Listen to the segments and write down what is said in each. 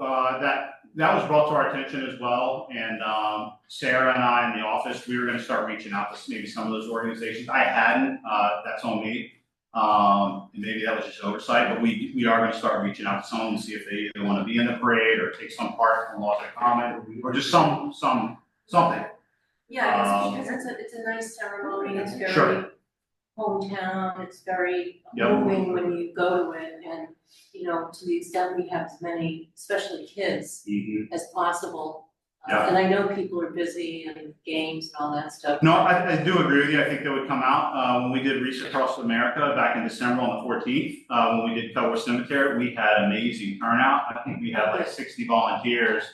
uh, that, that was brought to our attention as well, and, um, Sarah and I in the office, we were gonna start reaching out to maybe some of those organizations, I hadn't, uh, that's on me. Um, and maybe that was just oversight, but we, we are gonna start reaching out to some, and see if they either wanna be in the parade, or take some part in Laws of Common, or just some, some, something. Yeah, Um, I guess because it's a, it's a nice ceremony, it's very Sure. hometown, it's very Yep. moving when you go to it and, you know, to the extent we have as many, especially kids, Mhm. as possible. Uh, Yeah. And I know people are busy and games and all that stuff. No, I, I do agree with you, I think that would come out, uh, when we did Reach Across America back in December on the fourteenth, uh, when we did Cowboy Cemetery, we had amazing turnout, I think we had like sixty volunteers.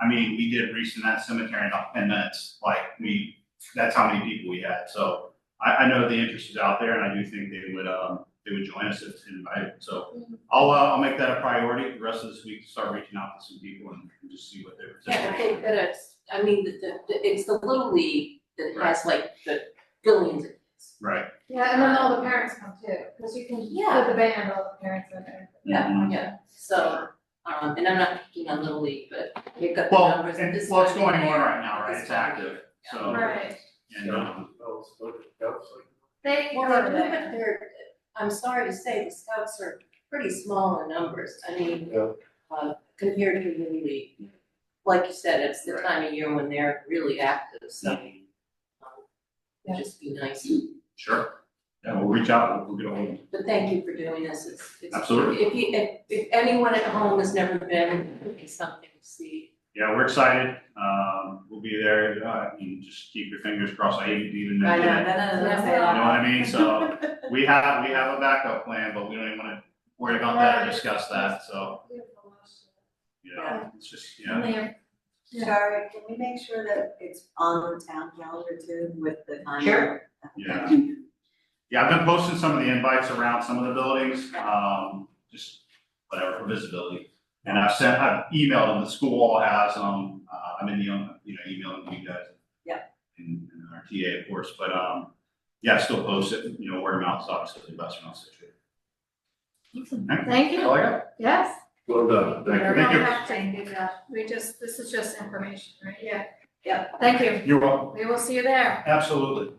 I mean, we did Reach in that cemetery in about ten minutes, like, we, that's how many people we had, so I, I know the interest is out there, and I do think they would, um, they would join us if invited, so I'll, uh, I'll make that a priority, the rest of this week, start reaching out to some people and just see what they're. Yeah, I think that it's, I mean, the, the, the- it's the little league that has like the billions of kids. Right. Yeah, and then all the parents come too, because you can Yeah. put the band, all the parents in there. Yeah, yeah, so, um, and I'm not picking on little league, but you've got the Well, numbers and and this what's one going on there, right now, right? this It's one active, here, yeah. so- Right, And, um, they Well, go they're, to they're- that. they're, I'm sorry to say, the scouts are pretty small in numbers, I mean, Yeah. uh, compared to the league. Like you said, it's the time of year when they're really active, so. um, Yeah. It'd just be nice, sure, yeah, we'll reach out, we'll get a hold of but thank you for doing this, it's, it's. Absolutely. If you, if, if anyone at home has never been, it's something to see. Yeah, we're excited, um, we'll be there, uh, I mean, just keep your fingers crossed, I even, even mentioned it. You know what Mm-hmm. I mean, so, we have, we have a backup plan, but we don't even wanna worry about that or discuss that, so, Beautiful last you know, it's just, year. yeah. There. Sorry, can we make sure that it's on the town calendar too with the time? Sure. Yeah. Yeah, I've been posting some of the invites around some of the buildings, um, just whatever for visibility. And I've sent, I've emailed them, the school has them, uh, I'm in the, um, you know, emailing you guys. Yeah. And, and our TA, of course, but, um, yeah, I still post it, you know, word of mouth is obviously the best mouth situation. Thank you, yes. Well done, We Oh, thank don't you. Thank you. have to do that. we just, this is just information, right? Yeah. Yeah. Thank you, You're welcome. we will see you there. Absolutely.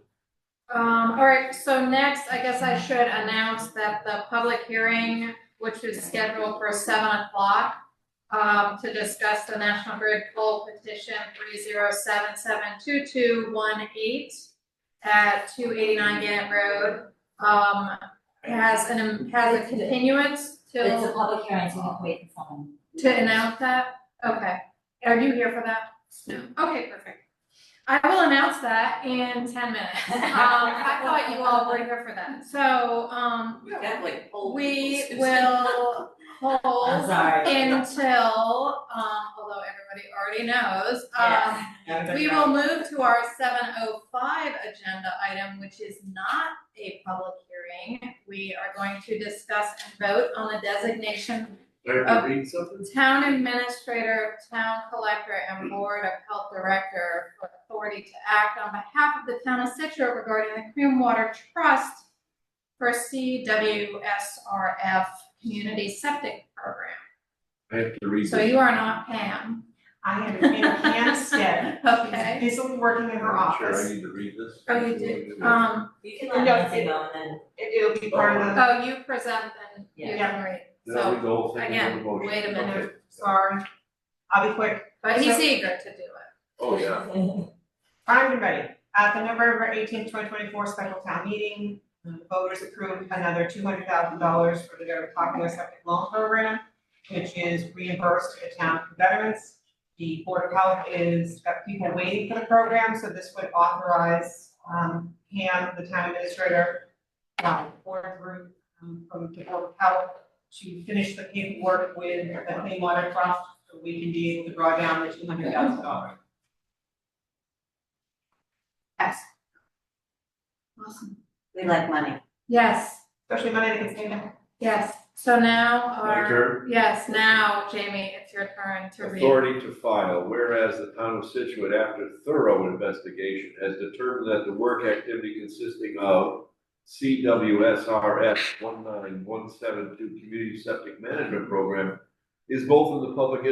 Um, all right, so next, I guess I should announce that the public hearing, which is scheduled for seven o'clock, um, to discuss the National Grid poll petition three zero seven seven two two one eight at two eighty-nine Gannett Road, um, has an, has a continuance It's a till, public hearing, so we have to wait for someone. to announce that? Okay, are you here for that? Okay, perfect. I will announce that in ten minutes. Um, I thought you all were here for that. So, um, We've got like old we people, Susan. will I'm hold sorry. until, um, although everybody already knows, Yes. um, we will move to our seven oh five agenda item, which is not a public hearing. We are going to discuss and vote on the designation Thank you. Oh. Read something? Town administrator, town collector, and board of health director for authority to act on behalf of the town of Situate regarding the Cream Water Trust for CWSRF Community Septic Program. I have to read So this. you are not Pam, I am in Hampstead. okay? She's busily working in her I'm sure I office. need to read this. Oh, you did, um, You can let Nancy know and then. It, will be part of the, oh, you present and you can read, Now we so, go whole thing into again, the motion. wait a minute, Okay. sorry, I'll be quick. but he's So- eager to do it. Oh, yeah. Primed and ready. At Uh, the November eighteenth, twenty twenty-four special town meeting, the voters approved another two hundred thousand dollars for the Governor Popular Septic Loan Program, which is reimbursed to the town for veterans. The Board of Health is, got people waiting for the program, so this would authorize, um, Pam, the town administrator, um, board group, um, from the Board of Health to finish the paperwork with the Clean Water Trust, so we can be able to draw down the two hundred thousand dollars. Awesome. We like money. Yes, especially money that can stay there. yes, so now My our, turn. yes, now Jamie, it's your turn to read. Authority to file, whereas the town of Situate, after thorough investigation, has determined that the work activity consisting of CWSRS one nine one seven two Community Septic Management Program is both in the public